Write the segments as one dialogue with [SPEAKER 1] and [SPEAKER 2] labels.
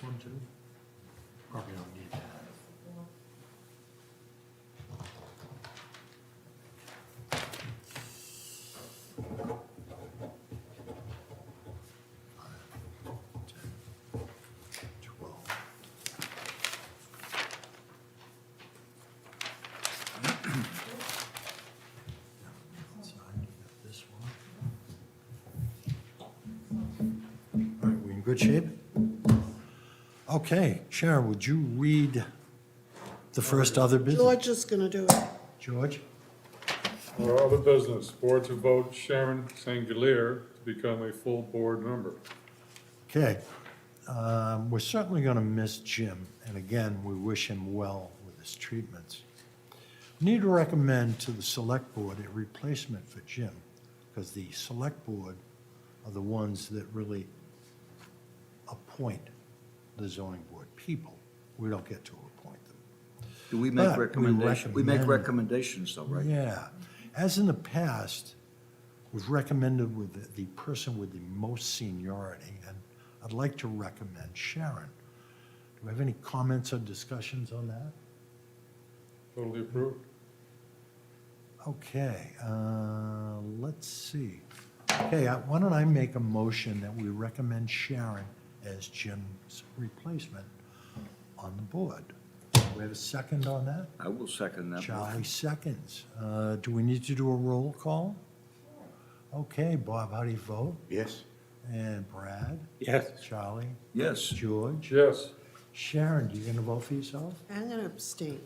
[SPEAKER 1] one too? Probably don't need that. Five, ten, twelve. Now, outside, you got This one. All right, we in good shape? Okay, Sharon, would you read the first other business?
[SPEAKER 2] George is gonna do it.
[SPEAKER 1] George?
[SPEAKER 3] Our other business, board to vote Sharon Sangalier to become a full board member.
[SPEAKER 1] Okay. Um, We're certainly going to miss Jim, and again, we wish him well with his treatments. Need to recommend to the Select Board a replacement for Jim, because the Select Board are the ones that really appoint the zoning board people. We don't get to appoint them.
[SPEAKER 4] Do we
[SPEAKER 1] But
[SPEAKER 4] make
[SPEAKER 1] we
[SPEAKER 4] recommendations? We make
[SPEAKER 1] recommend-
[SPEAKER 4] recommendations though, right?
[SPEAKER 1] Yeah. As in the past, was recommended with the- the person with the most seniority, and I'd like to recommend Sharon. Do we have any comments or discussions on that?
[SPEAKER 3] Totally approved.
[SPEAKER 1] Okay, uh, let's see. Okay, I- why don't I make a motion that we recommend Sharon as Jim's replacement on the board? Do we have a second on that?
[SPEAKER 4] I will second that.
[SPEAKER 1] Charlie
[SPEAKER 4] motion.
[SPEAKER 1] seconds. Uh, Do we need to do a roll call? Okay, Bob, how do you vote?
[SPEAKER 5] Yes.
[SPEAKER 1] And Brad?
[SPEAKER 5] Yes.
[SPEAKER 1] Charlie?
[SPEAKER 4] Yes,
[SPEAKER 1] George?
[SPEAKER 3] Yes,
[SPEAKER 1] Sharon, you gonna vote for yourself?
[SPEAKER 2] I'm gonna abstain.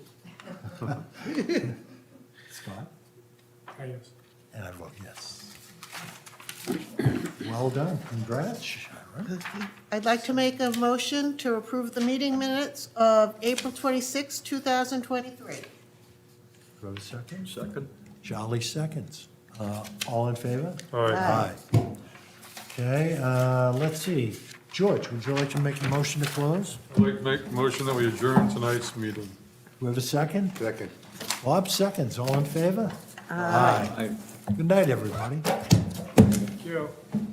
[SPEAKER 1] Scott?
[SPEAKER 3] Ah,
[SPEAKER 6] I guess.
[SPEAKER 1] And I vote yes. Well done, congrats, Sharon.
[SPEAKER 2] I'd like to make a motion to approve the meeting minutes of April 26, 2023.
[SPEAKER 1] Vote seconds.
[SPEAKER 4] second.
[SPEAKER 1] Charlie seconds. Uh, All in favor?
[SPEAKER 3] Aye.
[SPEAKER 1] Aye. Okay, uh, let's see. George, would you like to make a motion to close?
[SPEAKER 3] I'd like to make a motion that we adjourn tonight's meeting.
[SPEAKER 1] Do we have a second?
[SPEAKER 5] Second.
[SPEAKER 1] Bob seconds, all in favor? Aye.
[SPEAKER 4] I-
[SPEAKER 1] Good night, everybody.
[SPEAKER 3] Thank you.